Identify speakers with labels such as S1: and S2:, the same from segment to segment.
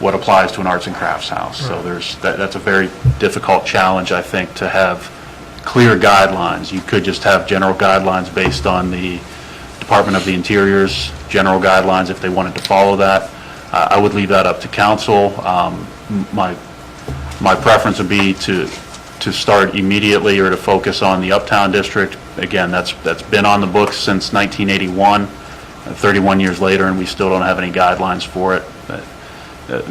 S1: what applies to an arts and crafts house. So there's, that, that's a very difficult challenge, I think, to have clear guidelines. You could just have general guidelines based on the Department of the Interior's general guidelines, if they wanted to follow that. Uh, I would leave that up to council. Um, m- My, my preference would be to, to start immediately or to focus on the Uptown District. Again, that's, that's been on the books since 1981, uh, 31 years later, and we still don't have any guidelines for it. Uh,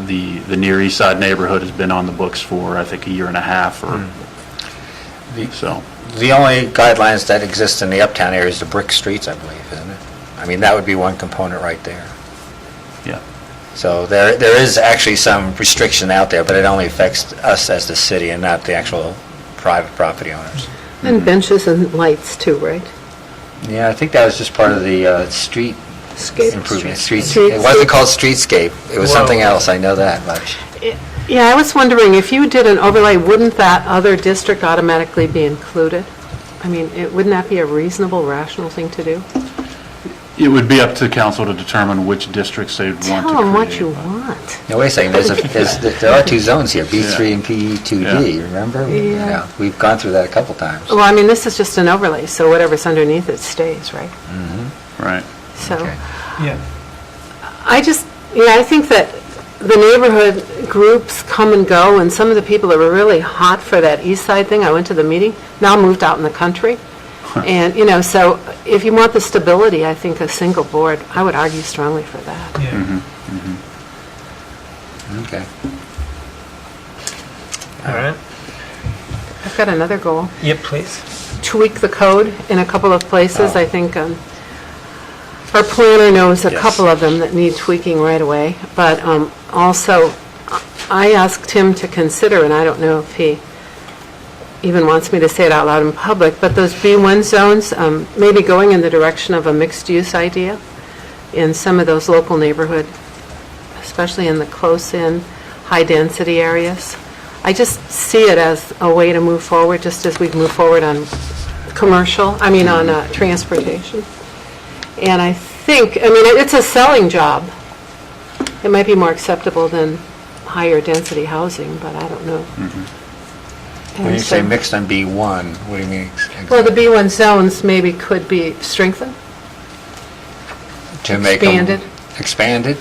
S1: The, the Near East Side neighborhood has been on the books for, I think, a year and a half or,
S2: The-
S1: so.
S2: The only guidelines that exist in the uptown area is the brick streets, I believe, isn't it? I mean, that would be one component right there.
S1: Yeah.
S2: So there, there is actually some restriction out there, but it only affects us as the city and not the actual private property owners.
S3: And benches and lights too, right?
S2: Yeah, I think that was just part of the uh, street
S3: Skate-
S2: improvement, streets,
S3: Street-
S2: it wasn't called streetscape, it was something
S4: Whoa.
S2: else, I know that much.
S3: Yeah, I was wondering, if you did an overlay, wouldn't that other district automatically be included? I mean, it- wouldn't that be a reasonable, rational thing to do?
S1: It would be up to council to determine which districts they'd want to create.
S3: Tell them what you want.
S2: Now, wait a second, there's, a- there's, there are two zones here, B3 and
S1: Yeah.
S2: PE2D, remember?
S3: Yeah. Oh,
S2: We've gone through that a couple times.
S3: Well, I mean, this is just an overlay, so whatever's underneath it stays, right?
S1: Right.
S3: So,
S2: Mm-hmm. Okay.
S4: Yeah.
S3: I just, you know, I think that the neighborhood groups come and go, and some of the people that were really hot for that east side thing, I went to the meeting, now moved out in the country. And, you know, so if you want the stability, I think a single board, I would argue strongly for that.
S4: Yeah.
S2: Okay.
S4: All right.
S3: I've got another goal,
S4: Yep, please.
S3: tweak the code in a couple of places. I think um, our planner knows a
S2: Yes.
S3: couple of them that need tweaking right away, but um, also, I asked him to consider, and I don't know if he even wants me to say it out loud in public, but those B1 zones, um, maybe going in the direction of a mixed-use idea in some of those local neighborhood, especially in the close-in, high-density areas. I just see it as a way to move forward, just as we've moved forward on commercial, I mean, on uh, transportation. And I think, I mean, it's a selling job. It might be more acceptable than higher-density housing, but I don't know.
S2: When you
S3: And
S2: say
S3: so-
S2: mixed on B1, what do you mean? ex-
S3: Well, the B1 zones maybe could be strengthened.
S2: To make them-
S3: expanded.
S2: Expanded?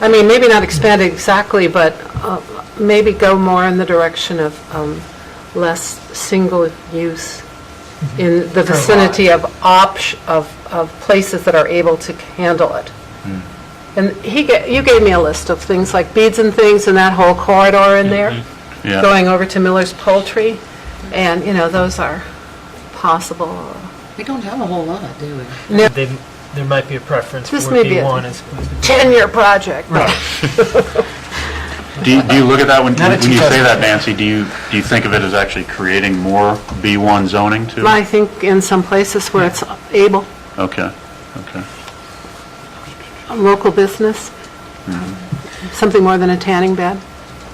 S3: I mean, maybe not expand exactly, but uh, maybe go more in the direction of um, less single use in the
S4: For a lot.
S3: vicinity of opt, of, of places that are able to handle it. And he, ga- you gave me a list of things like beads and things and that whole corridor in there,
S1: Yeah.
S3: going over to Miller's Poultry, and, you know, those are possible.
S5: We don't have a whole lot, do we?
S3: No.
S4: They, there might be a preference for
S3: This may be a-
S4: B1 as opposed to.
S3: 10-year project, but-
S1: Do you, do you look at that when,
S4: Not a
S1: when you say
S4: 2000.
S1: that, Nancy, do you, do you think of it as actually creating more B1 zoning too?
S3: I think in some places where it's able,
S1: Okay, okay.
S3: a local business, something more than a tanning bed.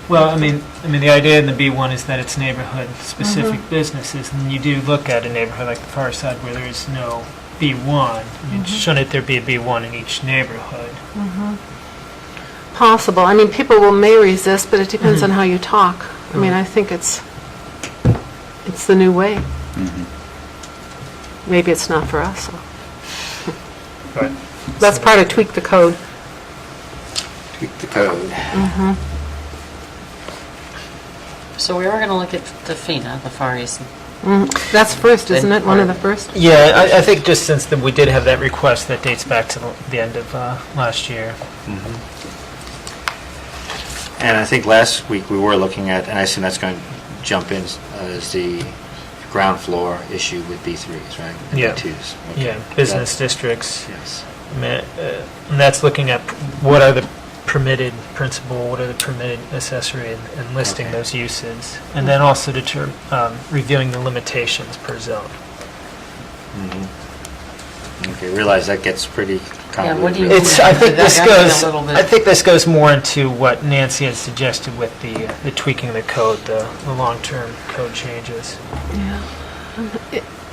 S4: Well, I mean, I mean, the idea in the B1 is that it's
S3: Mm-hmm.
S4: neighborhood-specific businesses, and you do look at a neighborhood like the far side where there is no B1, I
S3: Mm-hmm.
S4: mean, shouldn't there be a B1 in each neighborhood?
S3: Possible. I mean, people will, may resist, but it depends on how you talk. I mean, I think it's, it's the new way. Maybe it's not for us.
S4: Right.
S3: That's part of tweak the code.
S2: Tweak the code.
S5: So we are going to look at the FINA, the Far East.
S3: Mm-hmm. That's first, isn't it? One of the first?
S4: Yeah, I, I think just since the, we did have that request that dates back to the, the end of uh, last year.
S2: Mm-hmm. And I think last week we were looking at, and I assume that's going to jump in, uh, is the ground floor issue with B3s, right? And
S4: Yeah.
S2: B2s. Okay.
S4: Yeah, business districts.
S2: That- Yes.
S4: I mean, uh, And that's looking at what are the permitted principal, what are the permitted accessory, and- and listing
S2: Okay.
S4: those uses. And then also deter, um, reviewing the limitations per zone.
S2: Okay, realize that gets pretty convoluted.
S5: what do you-
S2: really.
S4: It's, I think this
S5: That got me a
S4: goes,
S5: little bit.
S4: I think this goes more into what Nancy had suggested with the uh, the tweaking of the code, the the long-term code changes.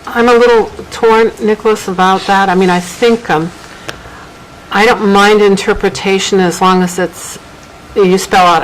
S3: I'm a little torn, Nicholas, about that. I mean, I think, um, I don't mind interpretation as long as it's, you spell out